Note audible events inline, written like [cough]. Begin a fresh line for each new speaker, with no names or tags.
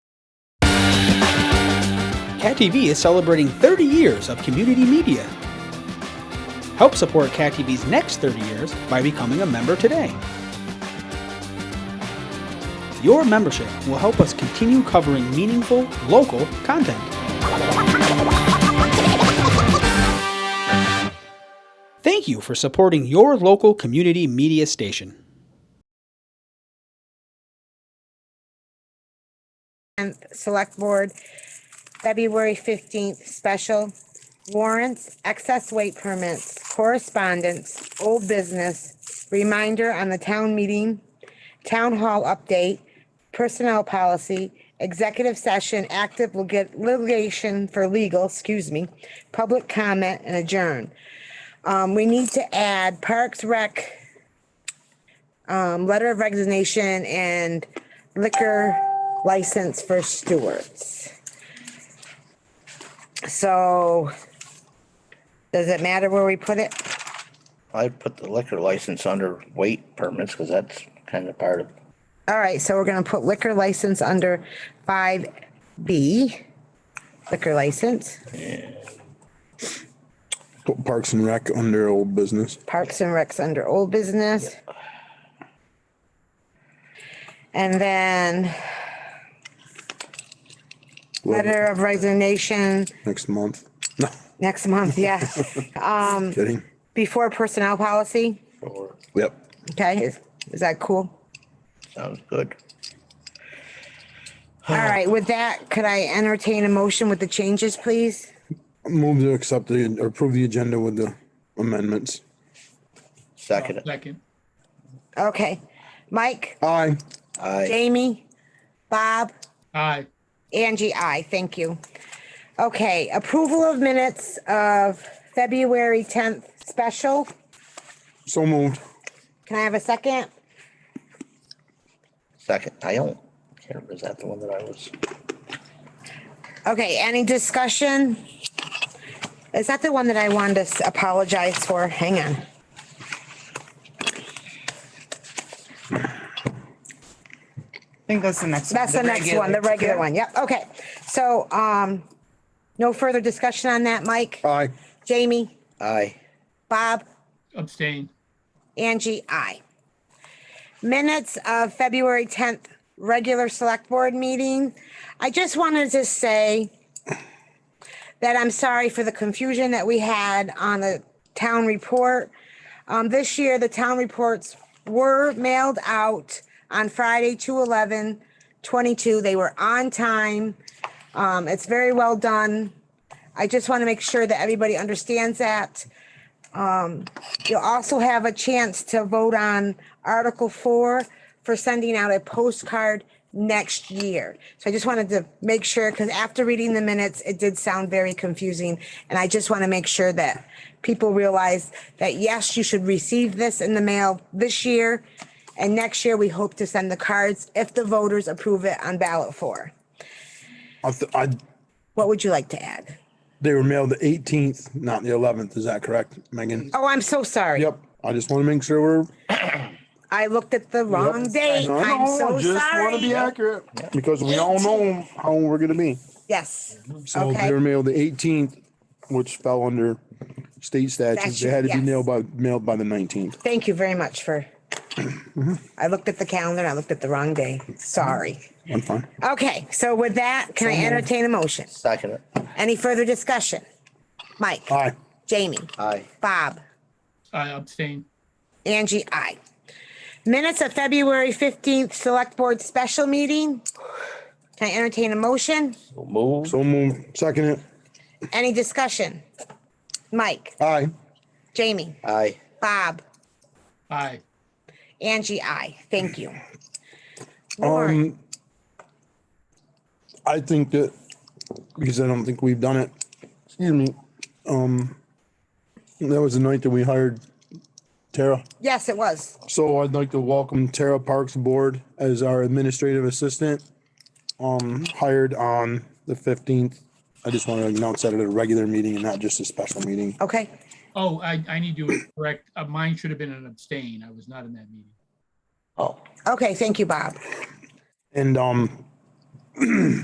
Cat TV is celebrating 30 years of community media. Help support Cat TV's next 30 years by becoming a member today. Your membership will help us continue covering meaningful, local content. Thank you for supporting your local community media station.
and Select Board, February fifteenth, special warrants, excess weight permits, correspondence, old business, reminder on the town meeting, town hall update, personnel policy, executive session, active lig- litigation for legal, excuse me, public comment and adjourn. Um, we need to add Parks Rec, um, letter of resignation and liquor license for stewards. So does it matter where we put it?
I'd put the liquor license under weight permits because that's kind of part of,
All right, so we're gonna put liquor license under five B, liquor license,
Put Parks and Rec under old business.
Parks and Recs under old business. And then letter of resignation
Next month. No,
next month, yeah,
kidding.
before personnel policy,
or
Yep.
okay, is, is that cool?
sounds good.
[sighs] All right, with that, could I entertain a motion with the changes, please?
Move to accept the, or approve the agenda with the amendments.
Second,
Second.
Okay, Mike,
Aye.
I,
Jamie, Bob,
Aye.
Angie, I, thank you. Okay, approval of minutes of February tenth special.
So moved.
Can I have a second?
second, I don't care, is that the one that I was?
Okay, any discussion? Is that the one that I wanted to s- apologize for? Hang on.
I think that's the next.
That's the next one, the regular one. Yep, okay. So, um, no further discussion on that, Mike,
Aye.
Jamie,
I,
Bob,
Abstain.
Angie, I. Minutes of February tenth, regular select board meeting. I just wanted to say that I'm sorry for the confusion that we had on the town report. Um, this year, the town reports were mailed out on Friday, 2/11, 22. They were on time. Um, it's very well done. I just want to make sure that everybody understands that. You'll also have a chance to vote on Article Four for sending out a postcard next year. So I just wanted to make sure, because after reading the minutes, it did sound very confusing. And I just want to make sure that people realize that, yes, you should receive this in the mail this year. And next year, we hope to send the cards if the voters approve it on ballot four.
I, th- I,
What would you like to add?
they were mailed the eighteenth, not the eleventh. Is that correct, Megan?
Oh, I'm so sorry.
Yep. I just want to make sure we're.
I looked at the wrong date. I'm so
Just want to be
sorry.
accurate because we all know how we're gonna be.
Yes.
So
Okay.
they were mailed the eighteenth, which fell under state statutes. They had to be
Statute, yes.
nailed by, mailed by the nineteenth.
Thank you very much for, I looked at the calendar, and I looked at the wrong day. Sorry.
I'm fine.
Okay, so with that, can I entertain a motion?
second,
Any further discussion? Mike?
Aye.
Jamie?
I,
Bob?
I abstain.
Angie, I. Minutes of February 15th, Select Board Special Meeting. Can I entertain a motion?
move,
So moved. Second it.
Any discussion? Mike?
Aye.
Jamie?
I,
Bob?
Aye.
Angie, I. Thank you. Warren?
Um, I think that, because I don't think we've done it, excuse me, um, that was the night that we hired Tara.
Yes, it was.
So I'd like to welcome Tara Parks Board as our administrative assistant, um, hired on the fifteenth. I just want to announce that at a regular meeting and not just a special meeting.
Okay.
Oh, I, I need to correct. Uh, Mine should have been an abstain. I was not in that meeting.
oh.
Okay, thank you, Bob.
And, um,